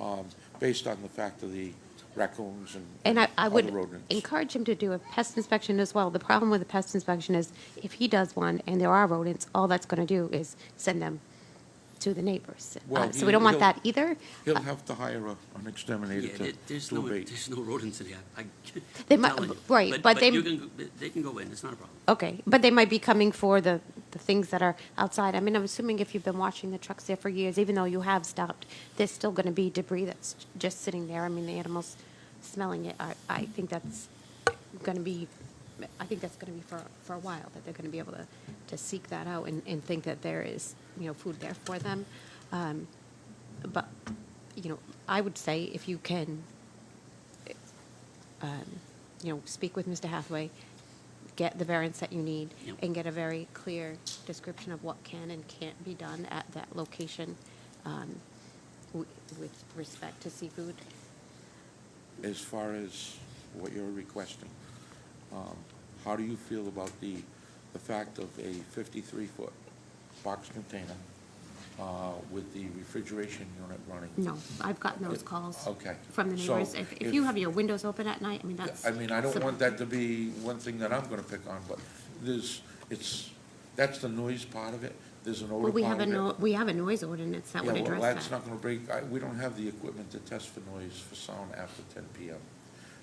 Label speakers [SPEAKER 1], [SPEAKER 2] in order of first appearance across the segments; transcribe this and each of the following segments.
[SPEAKER 1] um, based on the fact of the raccoons and
[SPEAKER 2] And I, I
[SPEAKER 1] other
[SPEAKER 2] would
[SPEAKER 1] rodents.
[SPEAKER 2] encourage him to do a pest inspection as well. The problem with a pest inspection is if he does one and there are rodents, all that's going to do is send them to the neighbors. Uh,
[SPEAKER 1] Well,
[SPEAKER 2] So we don't want
[SPEAKER 1] he'll-
[SPEAKER 2] that either.
[SPEAKER 1] He'll have to hire a- an exterminator
[SPEAKER 3] Yeah,
[SPEAKER 1] to,
[SPEAKER 3] there- there's
[SPEAKER 1] to
[SPEAKER 3] no,
[SPEAKER 1] abate.
[SPEAKER 3] there's no rodents in here. I-
[SPEAKER 2] They
[SPEAKER 3] I'm
[SPEAKER 2] might-
[SPEAKER 3] telling you.
[SPEAKER 2] right, but they-
[SPEAKER 3] you can go- They can go in, it's not a problem.
[SPEAKER 2] Okay, but they might be coming for the, the things that are outside. I mean, I'm assuming if you've been watching the trucks there for years, even though you have stopped, there's still going to be debris that's just sitting there. I mean, the animals smelling it, I, I think that's going to be, I think that's going to be for, for a while, that they're going to be able to, to seek that out and, and think that there is, you know, food there for them. Um, But, you know, I would say if you can, um, you know, speak with Mr. Hathaway, get the variance that you need,
[SPEAKER 3] Yep.
[SPEAKER 2] and get a very clear description of what can and can't be done at that location um, wi- with respect to seafood.
[SPEAKER 1] As far as what you're requesting, um, how do you feel about the, the fact of a 53-foot box container uh, with the refrigeration unit running?
[SPEAKER 2] No, I've gotten those
[SPEAKER 1] Yeah,
[SPEAKER 2] calls
[SPEAKER 1] okay.
[SPEAKER 2] from the
[SPEAKER 1] So
[SPEAKER 2] neighbors. If if
[SPEAKER 1] if-
[SPEAKER 2] you have your windows open at night, I mean, that's.
[SPEAKER 1] I mean, I don't
[SPEAKER 2] some-
[SPEAKER 1] want that to be one thing that I'm gonna pick on, but there's, it's, that's the noise part of it, there's an odor
[SPEAKER 2] Well,
[SPEAKER 1] part of it.
[SPEAKER 2] we have a, no- we have a noise ordinance that would
[SPEAKER 1] Yeah,
[SPEAKER 2] address
[SPEAKER 1] well,
[SPEAKER 2] that.
[SPEAKER 1] that's not gonna break, I, we don't have the equipment to test for noise for sound after ten PM.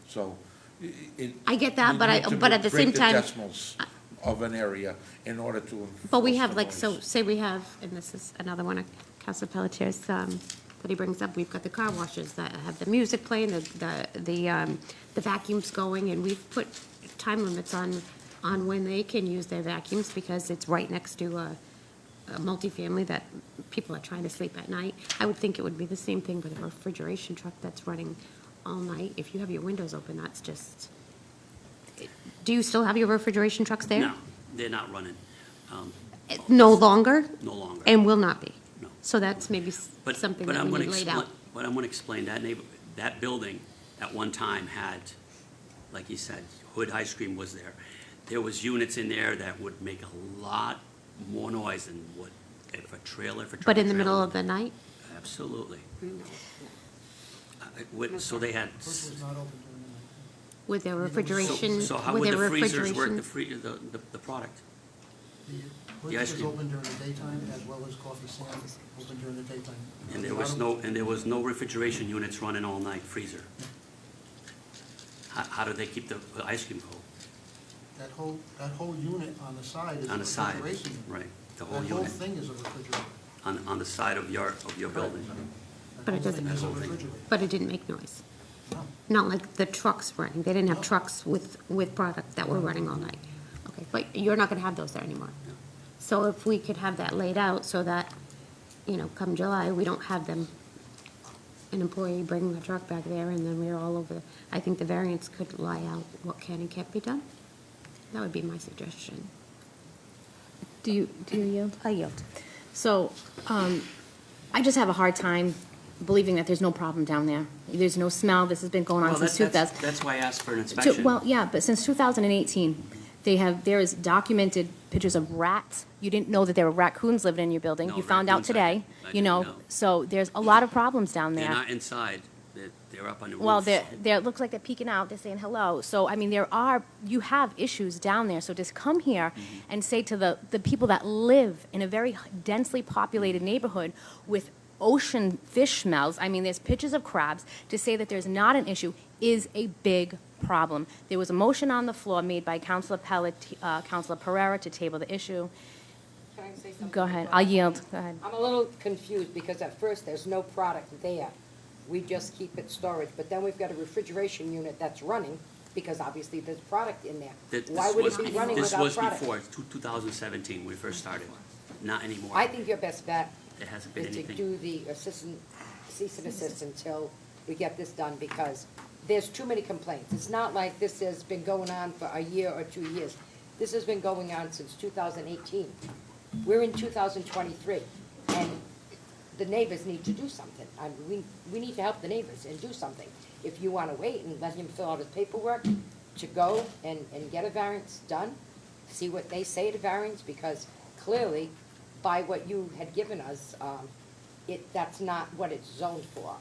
[SPEAKER 1] So, i- i- it.
[SPEAKER 2] I get that,
[SPEAKER 1] we
[SPEAKER 2] but I-
[SPEAKER 1] need to
[SPEAKER 2] but at the
[SPEAKER 1] break
[SPEAKER 2] same time-
[SPEAKER 1] the decimals of an area in order to.
[SPEAKER 2] But we
[SPEAKER 1] enforce
[SPEAKER 2] have
[SPEAKER 1] the
[SPEAKER 2] like, so,
[SPEAKER 1] noise.
[SPEAKER 2] say we have, and this is another one of Council Pelletier's, um, that he brings up, we've got the car washes that have the music playing, the, the, the, um, the vacuums going, and we've put time limits on, on when they can use their vacuums, because it's right next to a, a multifamily that people are trying to sleep at night. I would think it would be the same thing with a refrigeration truck that's running all night. If you have your windows open, that's just, do you still have your refrigeration trucks there?
[SPEAKER 3] No, they're not running, um,
[SPEAKER 2] No longer?
[SPEAKER 3] no longer.
[SPEAKER 2] And will not be.
[SPEAKER 3] No.
[SPEAKER 2] So that's maybe s-
[SPEAKER 3] But-
[SPEAKER 2] something
[SPEAKER 3] but
[SPEAKER 2] that
[SPEAKER 3] I'm
[SPEAKER 2] we
[SPEAKER 3] gonna
[SPEAKER 2] need laid
[SPEAKER 3] expli-
[SPEAKER 2] out.
[SPEAKER 3] But I'm gonna explain, that neighbor, that building at one time had, like you said, Hood Ice Cream was there. There was units in there that would make a lot more noise than what, if a trailer, if a trailer.
[SPEAKER 2] But in the middle of the night?
[SPEAKER 3] Absolutely. I- I- what- So they had. s-
[SPEAKER 4] Which was not open during the night.
[SPEAKER 2] With their
[SPEAKER 4] so-
[SPEAKER 2] refrigeration,
[SPEAKER 3] So how
[SPEAKER 2] with
[SPEAKER 3] would
[SPEAKER 2] their
[SPEAKER 3] the freezers work,
[SPEAKER 2] refrigeration?
[SPEAKER 3] the free, the, the, the product?
[SPEAKER 4] The
[SPEAKER 3] The ice
[SPEAKER 4] Which was
[SPEAKER 3] cream.
[SPEAKER 4] open during the daytime as well as coffee stand, open during the daytime.
[SPEAKER 3] And there was no, and there was no refrigeration units running all night freezer? How, how do they keep the the ice cream cold?
[SPEAKER 4] That whole, that whole unit on the side is a
[SPEAKER 3] On the side,
[SPEAKER 4] refrigeration unit.
[SPEAKER 3] right, the whole
[SPEAKER 4] That whole
[SPEAKER 3] unit,
[SPEAKER 4] thing is a refrigerator.
[SPEAKER 3] on, on the side of your, of your building?
[SPEAKER 4] That
[SPEAKER 2] But it
[SPEAKER 4] whole
[SPEAKER 2] doesn't-
[SPEAKER 4] thing is a
[SPEAKER 3] That whole thing.
[SPEAKER 4] refrigerator.
[SPEAKER 2] But it didn't make noise.
[SPEAKER 4] No.
[SPEAKER 2] Not like the trucks running. They didn't have
[SPEAKER 4] No.
[SPEAKER 2] trucks with, with product that were running all night. Okay, but you're not gonna have those there anymore.
[SPEAKER 3] No.
[SPEAKER 2] So if we could have that laid out so that, you know, come July, we don't have them, an employee bringing the truck back there and then we're all over. I think the variance could lie out what can and can't be done. That would be my suggestion.
[SPEAKER 5] Do you, do you yield?
[SPEAKER 2] I yield.
[SPEAKER 5] So, um, I just have a hard time believing that there's no problem down there. There's no smell, this has been going on
[SPEAKER 3] Well, that-
[SPEAKER 5] since two
[SPEAKER 3] that's,
[SPEAKER 5] thousand.
[SPEAKER 3] that's why I asked for an
[SPEAKER 5] To-
[SPEAKER 3] inspection.
[SPEAKER 5] Well, yeah, but since 2018, they have, there is documented pictures of rats. You didn't know that there were raccoons living in your building.
[SPEAKER 3] No,
[SPEAKER 5] You found out
[SPEAKER 3] raccoons, I
[SPEAKER 5] today,
[SPEAKER 3] didn't- I
[SPEAKER 5] you
[SPEAKER 3] didn't
[SPEAKER 5] know?
[SPEAKER 3] know.
[SPEAKER 5] So there's a lot of problems down
[SPEAKER 3] They're
[SPEAKER 5] there.
[SPEAKER 3] not inside, they're, they're up on the roof.
[SPEAKER 5] Well, they're, they're, it looks like they're peeking out, they're saying hello. So, I mean, there are, you have issues down there. So just come here and say to the, the people that live in a very densely populated neighborhood with ocean fish smells, I mean, there's pictures of crabs, to say that there's not an issue is a big problem. There was a motion on the floor made by Councilor Pellet, uh, Councilor Pereira to table the issue.
[SPEAKER 6] Can I say something?
[SPEAKER 5] Go ahead, I'll yield, go ahead.
[SPEAKER 6] I'm a little confused because at first, there's no product there. We just keep it storage, but then we've got a refrigeration unit that's running because obviously there's product in there.
[SPEAKER 3] Th-
[SPEAKER 6] Why
[SPEAKER 3] this
[SPEAKER 6] would
[SPEAKER 3] was
[SPEAKER 6] it be
[SPEAKER 3] before-
[SPEAKER 6] running without
[SPEAKER 3] This was
[SPEAKER 6] product?
[SPEAKER 3] before, two, two thousand seventeen, we first started, not anymore.
[SPEAKER 6] I think your best bet
[SPEAKER 3] It hasn't been
[SPEAKER 6] is to
[SPEAKER 3] anything.
[SPEAKER 6] do the assistant, cease and desist until we get this done because there's too many complaints. It's not like this has been going on for a year or two years. This has been going on since two thousand eighteen. We're in two thousand twenty-three and the neighbors need to do something. I mean, we, we need to help the neighbors and do something. If you wanna wait and let him fill out his paperwork to go and, and get a variance done, see what they say to variance, because clearly, by what you had given us, um, it, that's not what it's zoned for.